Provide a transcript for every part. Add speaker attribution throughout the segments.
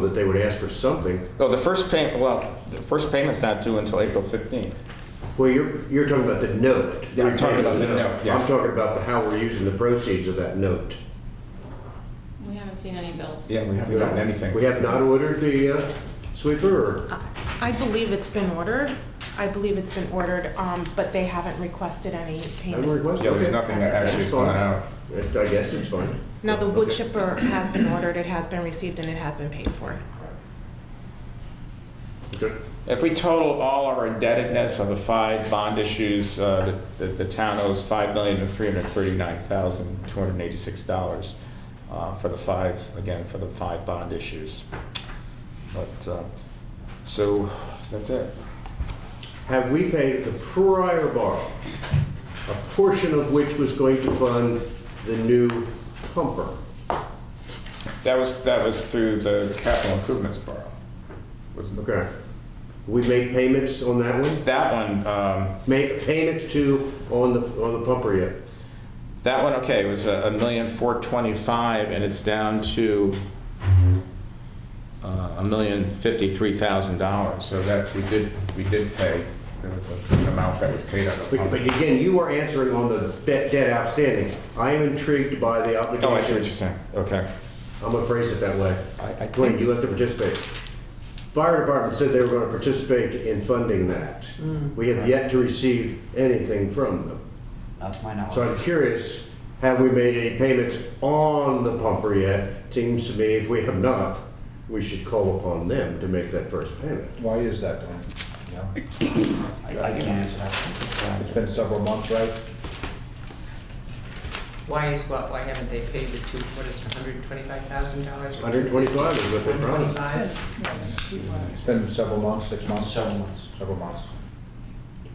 Speaker 1: that they would ask for something.
Speaker 2: No, the first payment, well, the first payment's not due until April 15th.
Speaker 1: Well, you're, you're talking about the note.
Speaker 2: Yeah, I'm talking about the note,
Speaker 1: I'm
Speaker 2: yes.
Speaker 1: talking about the- how we're using the proceeds of that note.
Speaker 3: We haven't seen any bills.
Speaker 2: Yeah, we haven't gotten anything.
Speaker 1: We have not ordered the uh, sweeper, or,
Speaker 4: I believe it's been ordered. I believe it's been ordered, um, but they haven't requested any
Speaker 1: I'm
Speaker 4: payment.
Speaker 1: requesting.
Speaker 2: Yeah, there's nothing that actually is going out.
Speaker 1: I guess it's fine.
Speaker 4: Now, the wood
Speaker 1: Okay.
Speaker 4: chipper has been ordered, it has been received, and it has been paid for.
Speaker 1: Okay.
Speaker 2: If we total all of our indebtedness of the five bond issues, uh, the, the town owes five million three hundred thirty-nine thousand two hundred eighty-six dollars uh, for the five, again, for the five bond issues. But, uh, so, that's it.
Speaker 1: Have we paid the prior borrow, a portion of which was going to fund the new pumper?
Speaker 2: That was, that was through the capital improvements borrow. Was-
Speaker 1: Okay. We made payments on that one?
Speaker 2: That one, um,
Speaker 1: Made payments to, on the, on the pumper yet?
Speaker 2: That one, okay, was a a million four twenty-five, and it's down to uh, a million fifty-three thousand dollars, so that, we did, we did pay, there was a- an amount that was paid out of.
Speaker 1: But but again, you are answering on the de- debt outstanding. I am intrigued by the obligation.
Speaker 2: Oh, I see what you're saying, okay.
Speaker 1: I'm gonna phrase it that way.
Speaker 2: I- I
Speaker 1: Dwayne,
Speaker 2: think-
Speaker 1: you have to participate. Fire department said they were gonna participate in funding that. We have yet to receive anything from them.
Speaker 5: Not to my knowledge.
Speaker 1: So I'm curious, have we made any payments on the pumper yet? Seems to me if we have not, we should call upon them to make that first payment.
Speaker 6: Why is that, Glenn? You know,
Speaker 5: I I can answer that.
Speaker 6: It's been several months, right?
Speaker 7: Why is what, why haven't they paid the two, what is it, hundred and twenty-five thousand dollars?
Speaker 1: Hundred twenty-five is what they promised.
Speaker 6: It's been several months, six months,
Speaker 5: Several months.
Speaker 6: several months.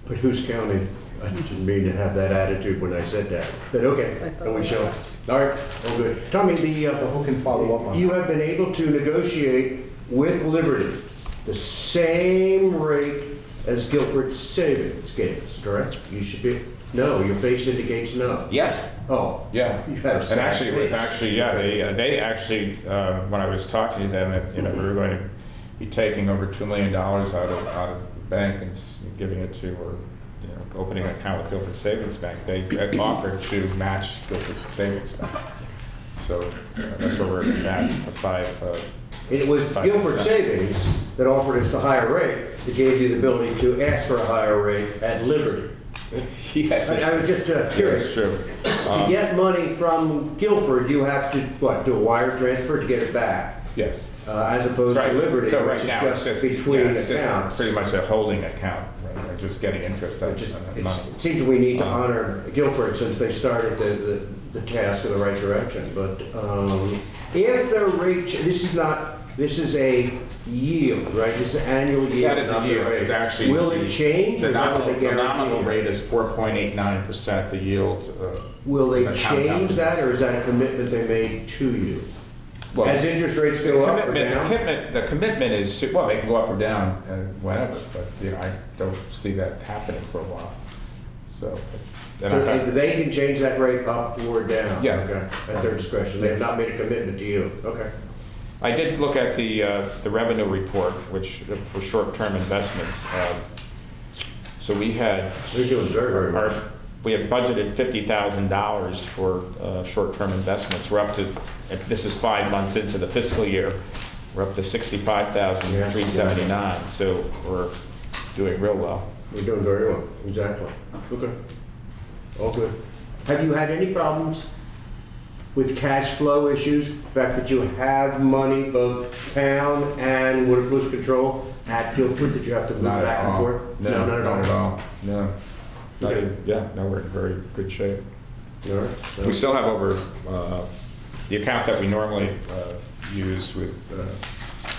Speaker 1: But who's counting? I didn't mean to have that attitude when I said that, but okay, and we shall. All right, all good. Tommy, the, uh,
Speaker 6: Who can follow up on
Speaker 1: you
Speaker 6: that?
Speaker 1: have been able to negotiate with Liberty the same rate as Guilford Savings gave us, correct? You should be, no, your face indicates no.
Speaker 2: Yes.
Speaker 1: Oh.
Speaker 2: Yeah,
Speaker 1: You had a
Speaker 2: and
Speaker 1: sad
Speaker 2: actually, it was
Speaker 1: face.
Speaker 2: actually, yeah, they, uh, they actually, uh, when I was talking to them, it- you know, we were going to be taking over two million dollars out of, out of the bank and s- giving it to, or, you know, opening an account with Guilford Savings Bank, they had offered to match Guilford Savings Bank. So uh, that's where we're at, the five, uh,
Speaker 1: And It was
Speaker 2: Five
Speaker 1: Guilford
Speaker 2: percent.
Speaker 1: Savings that offered us the higher rate that gave you the ability to ask for a higher rate at Liberty.
Speaker 2: yes,
Speaker 1: I I
Speaker 2: it-
Speaker 1: was just uh,
Speaker 2: yeah, it's
Speaker 1: curious.
Speaker 2: true.
Speaker 1: To
Speaker 2: Um,
Speaker 1: get money from Guilford, you have to, what, do a wire transfer to get it back?
Speaker 2: Yes.
Speaker 1: uh, as opposed to
Speaker 2: Right.
Speaker 1: Liberty,
Speaker 2: So
Speaker 1: which
Speaker 2: right
Speaker 1: is
Speaker 2: now, it's
Speaker 1: just
Speaker 2: just, yeah,
Speaker 1: between
Speaker 2: it's just
Speaker 1: accounts.
Speaker 2: pretty much a holding account, right, They're just getting interest on
Speaker 1: It just-
Speaker 2: on that money. Um,
Speaker 1: it's- it seems we need to honor Guilford since they started the, the, the task in the right direction, but, um, if the rate, ch- this is not, this is a yield, right? This is an annual yield.
Speaker 2: That is
Speaker 1: not
Speaker 2: a
Speaker 1: the
Speaker 2: yield,
Speaker 1: rate.
Speaker 2: it's actually.
Speaker 1: Will
Speaker 2: the-
Speaker 1: it change or
Speaker 2: The
Speaker 1: is that what
Speaker 2: nominal,
Speaker 1: they
Speaker 2: the nominal
Speaker 1: guarantee?
Speaker 2: rate is four point eight nine percent, the yield. uh,
Speaker 1: Will
Speaker 2: is
Speaker 1: they
Speaker 2: a compound
Speaker 1: change that
Speaker 2: interest.
Speaker 1: or is that a commitment they made to you?
Speaker 2: Well,
Speaker 1: As interest rates
Speaker 2: The
Speaker 1: go up or
Speaker 2: commitment, the
Speaker 1: down?
Speaker 2: commitment, the commitment is, to- well, they can go up or down, uh, whenever, but, you know, I don't see that happening for a while, so. then I
Speaker 1: So
Speaker 2: thought-
Speaker 1: They they can change that rate up or down?
Speaker 2: Yeah.
Speaker 1: Okay, at their discretion. They have not made a commitment to you, okay.
Speaker 2: I did look at the, uh, the revenue report, which, uh, for short-term investments, um, so we had
Speaker 1: They're doing very, very well.
Speaker 2: Our, we have budgeted fifty thousand dollars for uh, short-term investments. We're up to, if this is five months into the fiscal year, we're up to sixty-five thousand three seventy-nine, so we're doing real well.
Speaker 1: We're doing very well, exactly. Okay. All good. Have you had any problems with cash flow issues? The fact that you have money, both town and water pollution control at Guilford, that you have to move
Speaker 2: Not at
Speaker 1: back and
Speaker 2: all.
Speaker 1: forth?
Speaker 2: No,
Speaker 1: not at all.
Speaker 2: No. Not
Speaker 1: Okay.
Speaker 2: even- Yeah, no, we're in very good shape.
Speaker 1: All right.
Speaker 2: We still have over, uh, the account that we normally uh, use with, uh,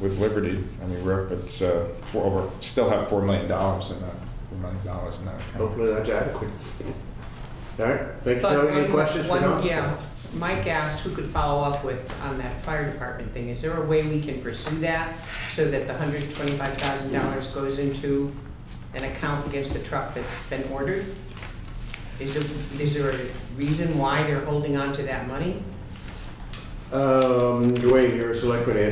Speaker 2: with Liberty, I mean, we're up at, uh, four- over, still have $4 million in that, $4 million in that account.
Speaker 1: Hopefully that's adequate. All right, thank you.
Speaker 7: But
Speaker 1: Any
Speaker 7: one-
Speaker 1: questions for
Speaker 7: one-
Speaker 1: Don?
Speaker 7: Yeah, Mike asked who could follow up with, on that fire department thing. Is there a way we can pursue that so that the hundred and twenty-five thousand dollars goes into an account against the truck that's been ordered? Is there, is there a reason why they're holding on to that money?
Speaker 1: um, Dwayne, you're a selectman, asked